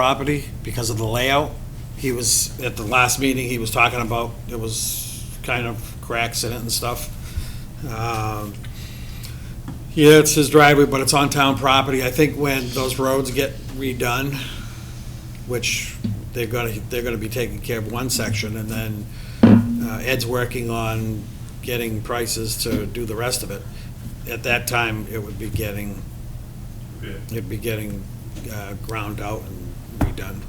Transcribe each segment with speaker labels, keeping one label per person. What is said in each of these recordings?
Speaker 1: property because of the layout. He was, at the last meeting, he was talking about, it was kind of cracks in it and stuff. Um, Yeah, it's his driveway, but it's on town property. I think when those roads get redone, which they're gonna, they're gonna be taking care of one section, and then uh, Ed's working on getting prices to do the rest of it. At that time, it would be getting, it'd be getting uh, ground out and redone.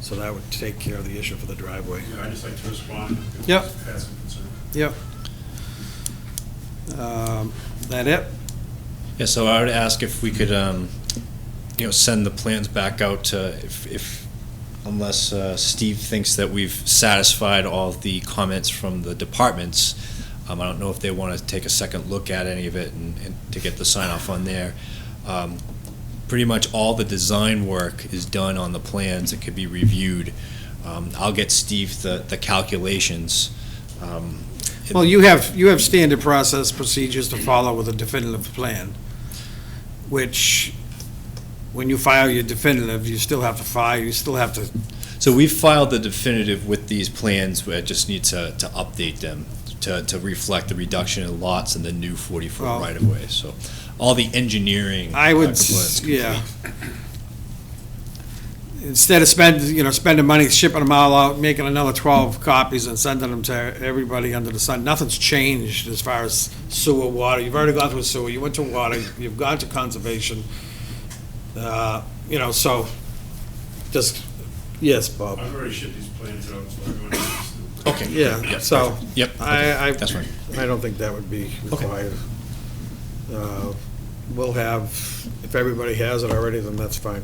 Speaker 1: So that would take care of the issue for the driveway.
Speaker 2: Yeah, I'd just like to respond. if
Speaker 1: Yep.
Speaker 2: it's Had some concern.
Speaker 1: Yep. Um, That it?
Speaker 3: Yeah, so I would ask if we could, um, you know, send the plans back out to, if, if, unless, uh, Steve thinks that we've satisfied all of the comments from the departments. Um, I don't know if they want to take a second look at any of it and, and to get the sign off on there. Um, pretty much all the design work is done on the plans. It could be reviewed. Um, I'll get Steve the, the calculations. Um,
Speaker 1: Well, you have, you have standard process procedures to follow with a definitive plan, which, when you file your definitive, you still have to file, you still have to,
Speaker 3: So we filed the definitive with these plans, we just need to, to update them to, to reflect the reduction in lots and the new
Speaker 1: Well-
Speaker 3: forty-foot right-of-way, so all the engineering.
Speaker 1: I would, s-
Speaker 3: components complete.
Speaker 1: yeah. Instead of spend, you know, spending money shipping them all out, making another twelve copies and sending them to everybody under the sun, nothing's changed as far as sewer, water, you've already gone through sewer, you went to water, you've gone to conservation. Uh, You know, so, just, yes, Bob.
Speaker 2: I've already shipped these plans out, so everyone knows.
Speaker 3: Okay.
Speaker 1: Yeah,
Speaker 3: Yep,
Speaker 1: so
Speaker 3: perfect. Yep.
Speaker 1: I, I,
Speaker 3: That's fine.
Speaker 1: I don't think that would be
Speaker 3: Okay.
Speaker 1: required. Uh, We'll have, if everybody has it already, then that's fine.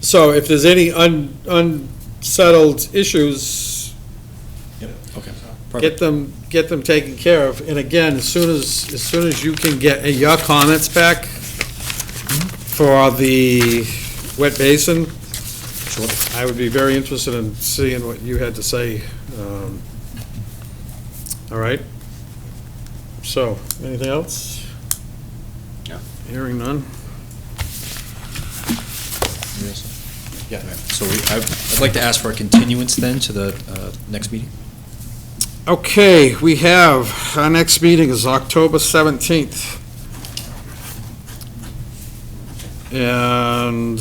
Speaker 1: So if there's any un- unsettled issues,
Speaker 3: Yep, okay.
Speaker 1: get
Speaker 3: Perfect.
Speaker 1: them, get them taken care of. And again, as soon as, as soon as you can get your comments back for the wet basin,
Speaker 3: Sure.
Speaker 1: I would be very interested in seeing what you had to say. um, All right? So, anything else?
Speaker 3: No.
Speaker 1: Hearing none?
Speaker 3: Yeah, so we, I- I'd like to ask for a continuance then to the, uh, next meeting.
Speaker 1: Okay, we have, our next meeting is October 17th. And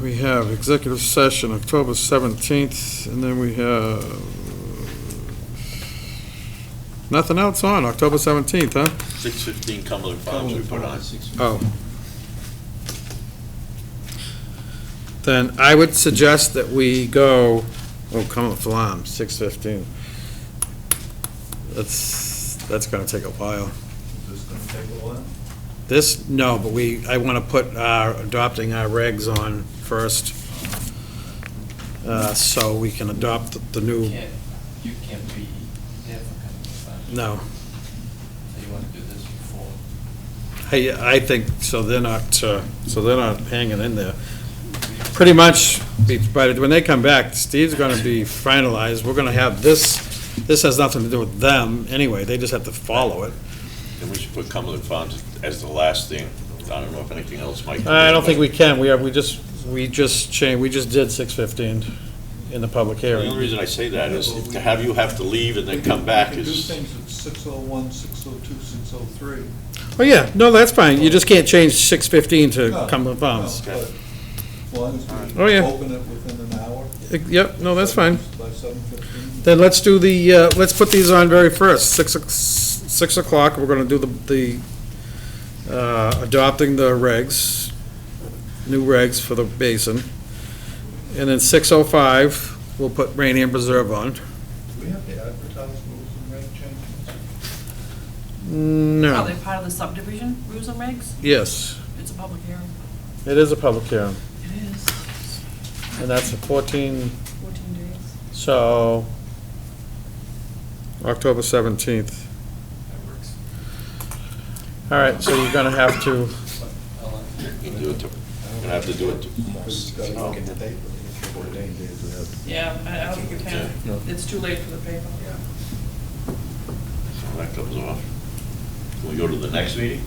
Speaker 1: we have executive session October 17th, and then we have, nothing else on October 17th, huh?
Speaker 4: Six fifteen Cumberland Farms we put on.
Speaker 1: Oh. Then I would suggest that we go, oh, come on, Flam, six fifteen. That's, that's gonna take a while. This, no, but we, I wanna put, uh, adopting our regs on first. Uh, so we can adopt the new,
Speaker 5: can't, you can't be there for coming to
Speaker 1: no,
Speaker 5: so you want to do this before.
Speaker 1: I, I think, so they're not, uh, so they're not hanging in there. Pretty much, be- by the when they come back, Steve's gonna be finalized, we're gonna have this, this has nothing to do with them anyway, they just have to follow it.
Speaker 4: And we should put Cumberland Farms as the last thing. I don't know if anything else might.
Speaker 1: I don't think we can, we are, we just, we just changed, we just did six fifteen in the public
Speaker 4: The
Speaker 1: hearing.
Speaker 4: only reason I say that is to have you have to leave and then come back is,
Speaker 6: We do things oh at 6:01, 6:02, 6:03.
Speaker 1: Oh, yeah, no, that's fine, you just can't change six fifteen to
Speaker 6: No,
Speaker 1: come to bounds.
Speaker 6: no, but As long as
Speaker 1: Oh,
Speaker 6: we
Speaker 1: yeah.
Speaker 6: open it within an hour.
Speaker 1: Yep, no, that's fine.
Speaker 6: By 7:15.
Speaker 1: Then let's do the, uh, let's put these on very first, six, o- six o'clock, we're gonna do the, the, uh, adopting the regs, new regs for the basin. And then six oh five, we'll put Rainham Preserve on.
Speaker 6: Do we have to advertise rules and reg changes?
Speaker 7: Are
Speaker 1: No,
Speaker 7: they part of the subdivision rules and regs?
Speaker 1: yes,
Speaker 7: It's a public hearing.
Speaker 1: it is a public hearing,
Speaker 7: It is.
Speaker 1: and that's a fourteen,
Speaker 7: Fourteen days.
Speaker 1: so, October seventeenth.
Speaker 5: That works.
Speaker 1: All right, so you're gonna have to,
Speaker 4: you do it to, you're gonna have to do it to.
Speaker 7: Yeah, I I don't think we can. It's too late for the paper.
Speaker 4: So That comes off. Can we go to the next meeting?